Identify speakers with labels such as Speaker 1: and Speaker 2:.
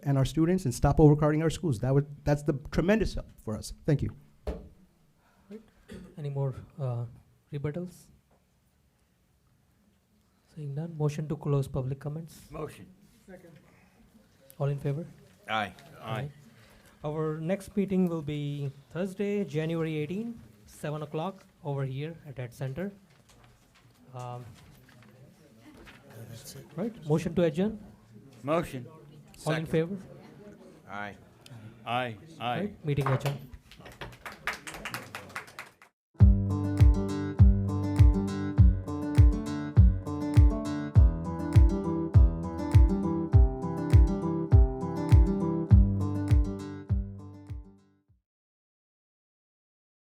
Speaker 1: and our students and stop overcrowding our schools. That would, that's the tremendous help for us. Thank you.
Speaker 2: Any more uh, rebuttals? Seeing none, motion to close public comments.
Speaker 3: Motion.
Speaker 2: All in favor?
Speaker 3: Aye.
Speaker 2: Our next meeting will be Thursday, January 18, 7 o'clock, over here at Ed Center. Um, Right, motion to adjourn?
Speaker 3: Motion.
Speaker 2: All in favor?
Speaker 3: Aye. Aye.
Speaker 2: Right, Meeting adjourned.